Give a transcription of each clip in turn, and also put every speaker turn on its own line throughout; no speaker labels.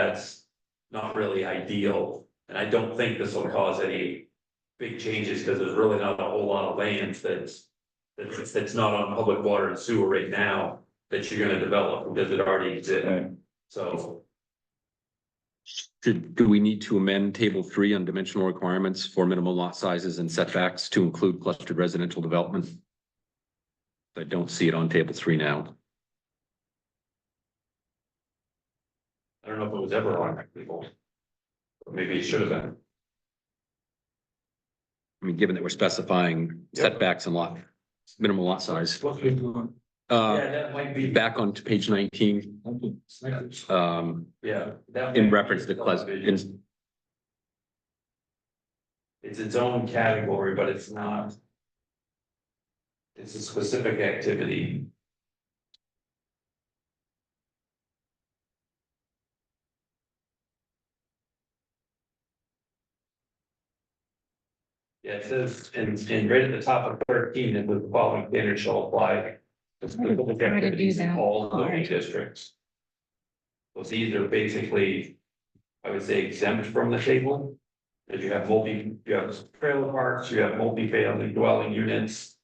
that's not really ideal. And I don't think this will cause any big changes, because there's really not a whole lot of land that's. That's, that's not on public water and sewer right now, that you're gonna develop, because it already exists,
Right.
so.
Should, do we need to amend table three on dimensional requirements for minimum lot sizes and setbacks to include clustered residential development? I don't see it on table three now.
I don't know if it was ever on that people. Maybe it should have been,
I mean, given that we're specifying setbacks and lot, minimum lot size.
yeah,
Uh,
that might be,
back on to page nineteen, um,
yeah. that
in
might be
reference to clus,
subdivision.
in-
It's its own category, but it's not. It's a specific activity. Yeah, it says, and, and right at the top of thirteen, it was the following standards shall apply. to
Why
specific
did you
activities in
that?
all zoning
Alright.
districts. So these are basically, I would say exempt from the table. If you have multi, you have trailer parks, you have multi-family dwelling units.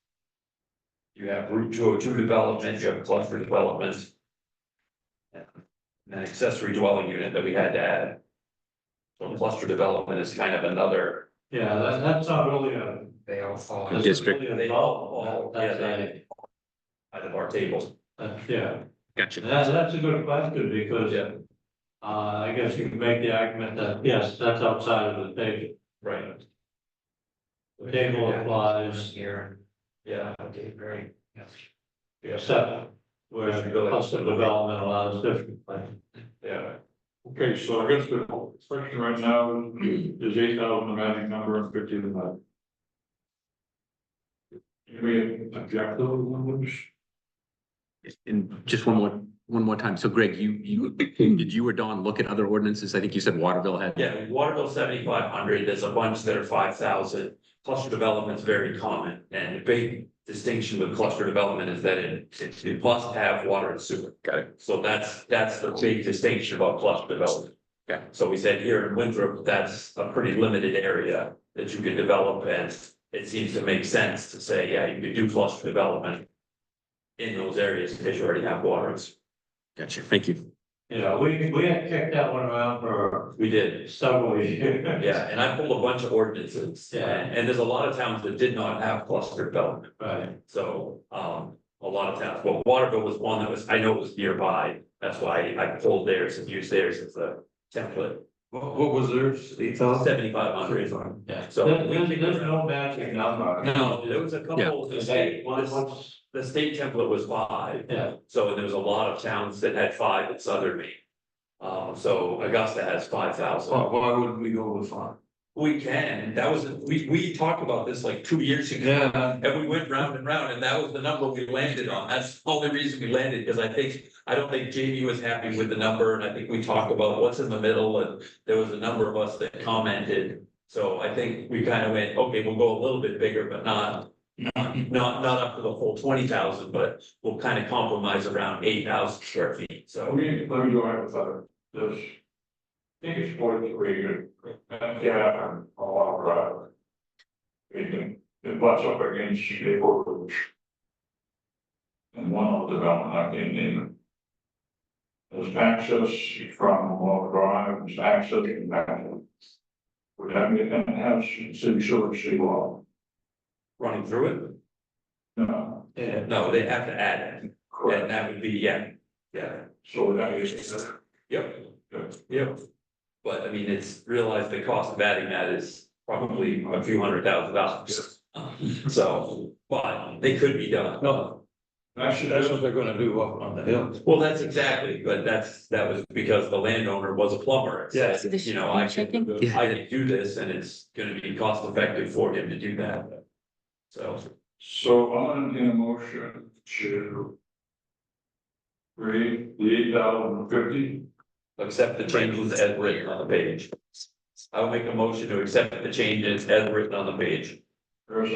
You have Route two oh two development, you have cluster development. and An accessory dwelling unit that we had to add. So cluster development is kind of another.
Yeah, that, that's not really a. They all fall.
District.
They all fall, yeah,
That's
they,
a,
out of our table.
that's- yeah,
gotcha.
that's, that's a good question, because.
Yeah.
Uh, I guess you can make the argument that, yes, that's outside of the table,
Right.
the table applies here,
Yeah, okay, very. Yes.
except where cluster development allows different things.
Yeah,
Okay, so I guess the question right now is eight thousand the magic number and fifty the magic. Anybody object to those numbers?
And just one more, one more time. So Greg, you, you, did you or Don look at other ordinances? I think you said Waterville had.
yeah, Waterville seventy-five hundred, there's a bunch that are five thousand. Cluster development is very common, and the big distinction with cluster development is that it, it it must have water and sewer.
Got it.
So that's, that's the big distinction about cluster development.
Okay.
So we said here in Winthrop, that's a pretty limited area that you can develop, and it seems to make sense to say, yeah, you could do cluster development. In those areas, because you already have waters.
Gotcha. Thank you.
Yeah, we, we had kicked that one around for
We did,
several years.
yeah, and I pulled a bunch of ordinances, and, and there's a lot of towns that did not have cluster development.
Right.
So, um, a lot of towns, well, Waterville was one that was, I know it was nearby, that's why I pulled theirs and used theirs as a template.
What, what was theirs? Eight
Seventy-five hundred,
Yeah, so
So-
there's, there's no magic number.
no, there was a couple, the
Is
state,
that
one,
one,
the
what's,
the state template was five,
yeah,
so there was a lot of towns that had five in southern Maine. Um, so Augusta has five thousand.
Why, why wouldn't we go with five?
We can, that was, we, we talked about this like two years ago.
Yeah.
And we went round and round, and that was the number we landed on, that's the only reason we landed, because I think, I don't think Jamie was happy with the number, and I think we talked about what's in the middle, and there was a number of us that commented. So I think we kind of went, okay, we'll go a little bit bigger, but not, not, not up to the whole twenty thousand, but we'll kind of compromise around eight thousand square feet,
Let
so.
me, let me go ahead with that. This, I think it's forty-three, and, yeah, and a lot of drive. It can, it butts up against the Ridge. And one of the development I can name. it. There's access from Long Drive, there's access and back. Would have, and have city sewer, city law,
Running through
no.
yeah.
it? No, they have to add it, and that would be, yeah, yeah,
So that is,
yep.
uh,
Yep. But I mean, it's realized the cost of adding that is probably a few hundred thousand dollars. So, but they could be done.
no. Actually, that's what they're gonna do up on the hill.
Well, that's exactly, but that's, that was because the landowner was a plumber. Yes.
So this
You know, I
should be
can,
Yeah.
I can do this and it's gonna be cost effective for him to do that. So,
So I'm in a motion to. Read the eight thousand fifty,
accept the changes as written on the page. I will make a motion to accept the changes as written on the page.
or a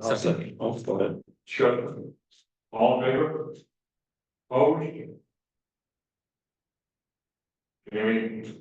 second,
Second.
Oh, go ahead.
Second. all in favor? Opposed? I mean,